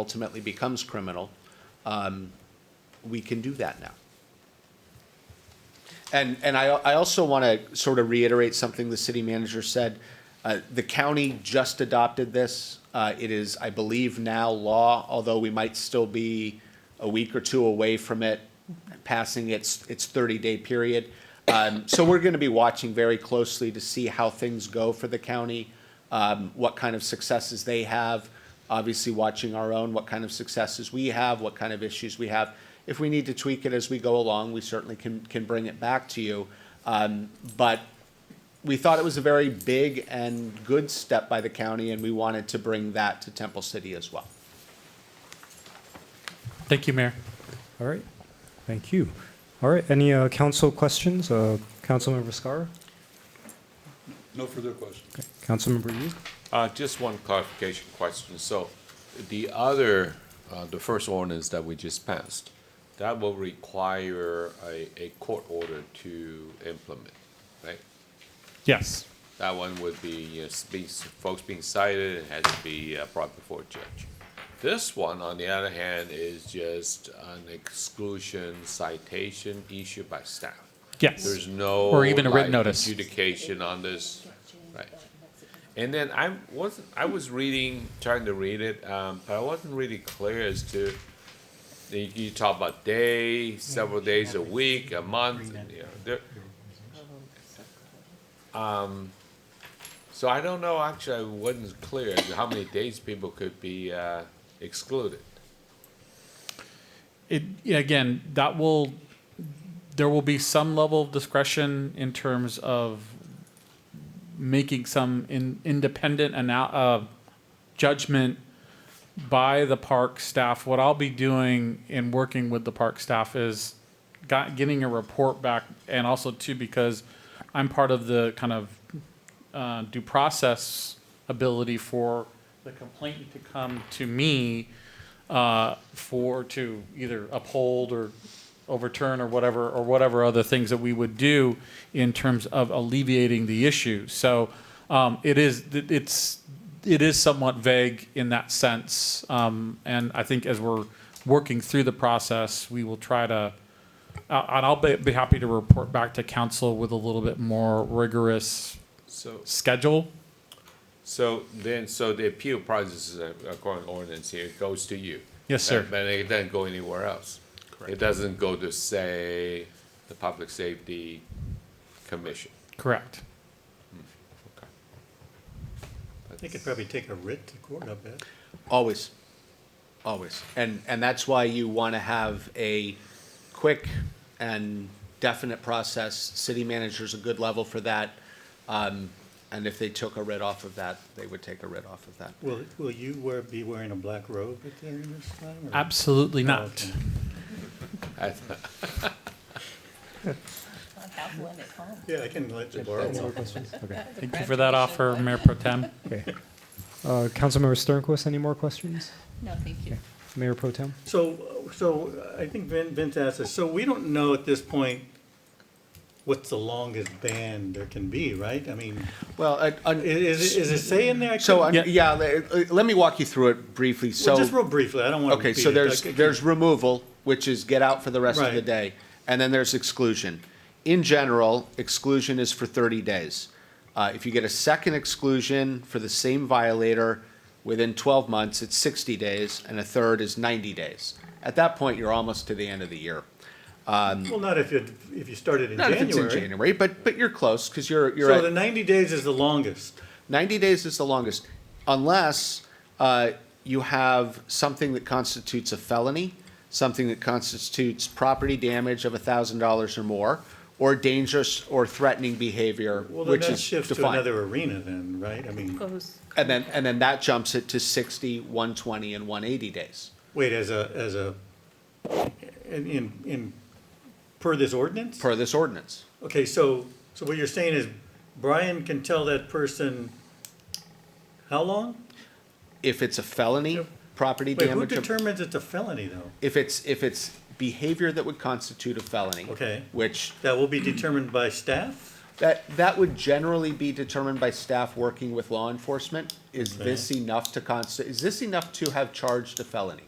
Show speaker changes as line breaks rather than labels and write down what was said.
ultimately becomes criminal, um, we can do that now. And, and I, I also want to sort of reiterate something the city manager said. Uh, The county just adopted this. Uh, It is, I believe, now law, although we might still be a week or two away from it passing its, its 30-day period. Um, So we're going to be watching very closely to see how things go for the county, um, what kind of successes they have, obviously watching our own, what kind of successes we have, what kind of issues we have. If we need to tweak it as we go along, we certainly can, can bring it back to you. Um, but we thought it was a very big and good step by the county, and we wanted to bring that to Temple City as well.
Thank you, Mayor.
All right, thank you. All right, any uh, council questions? Uh, Councilmember Scar,
No further questions.
Councilmember Yu?
Uh, Just one clarification question. So the other, uh, the first ordinance that we just passed, that will require a a court order to implement, right?
Yes.
That one would be, you know, be- folks being cited and had to be uh, brought before a judge. This one, on the other hand, is just an exclusion citation issued by staff.
Yes.
There's no.
Or even a written
like,
notice.
Adjudication on this, right. And then I wasn't, I was reading, trying to read it, um, but I wasn't really clear as to, you, you talk about day, several days a week, a month, and, you know, there. Um, so I don't know, actually, I wasn't clear as to how many days people could be, uh, excluded.
It, again, that will, there will be some level of discretion in terms of making some in, independent ana- uh, judgment by the park staff. What I'll be doing in working with the park staff is got, getting a report back, and also too because I'm part of the kind of uh, due process ability for the complainant to come to me uh, for to either uphold or overturn or whatever or whatever other things that we would do in terms of alleviating the issue. So um, it is it's it is somewhat vague in that sense, um, and I think as we're working through the process, we will try to. Uh, and I'll be, be happy to report back to council with a little bit more rigorous
So
schedule.
So then, so the appeal process, is, uh, according to ordinance here, goes to you?
Yes, sir.
But it doesn't go anywhere else? It doesn't go to, say, the Public Safety Commission?
Correct.
They could probably take a writ to court, I bet.
Always, always. And, and that's why you want to have a quick and definite process. City manager's a good level for that. Um, and if they took a writ off of that, they would take a writ off of that.
Will, will you wear, be wearing a black robe at the hearing this time? or-
Absolutely
Oh,
not.
okay.
I-
I'll have one at home.
Yeah, I can let you borrow one.
Okay.
Thank you for that offer, Mayor Pro Tem.
Okay. Uh, Councilmember Sternquist, any more questions?
No, thank you.
Mayor Pro Tem?
So, so I think Vin, Vince asked us, so we don't know at this point what's the longest ban there can be, right? I mean,
Well, I-
i-
I-
is, it- is it say in there? I
so,
couldn't-
I-
Yeah.
yeah, uh, let let me walk you through it briefly. So.
Well, Just real briefly, I don't want to
Okay,
repeat it.
so there's,
like, I
there's
keep-
removal, which is get out for the rest of the
Right.
day, and then there's exclusion. In general, exclusion is for thirty days. Uh, if you get a second exclusion for the same violator within twelve months, it's sixty days, and a third is ninety days. At that point, you're almost to the end of the year.
Well, not if you, if you started in
Not if it's in
January.
January, but, but you're close, because you're, you're
So the
at,
ninety days is the longest.
ninety days is the longest, unless, uh, you have something that constitutes a felony, something that constitutes property damage of a thousand dollars or more, or dangerous or threatening behavior,
Well, then
which
that
is
shifts to
defined.
another arena then, right? I mean,
Goes.
And then, and then that jumps it to sixty, one twenty, and one eighty days.
wait, as a, as a, in, in, in, per this ordinance?
per this ordinance.
Okay, so, so what you're saying is Brian can tell that person how long?
If it's a felony,
Yep.
property
Wait, who
damage, of-
determines it's a felony though?
if it's, if it's behavior that would constitute a felony.
Okay.
Which
That will be determined by staff?
That, that would generally be determined by staff working with law enforcement. Is this enough to const, is this enough to have charged a felony?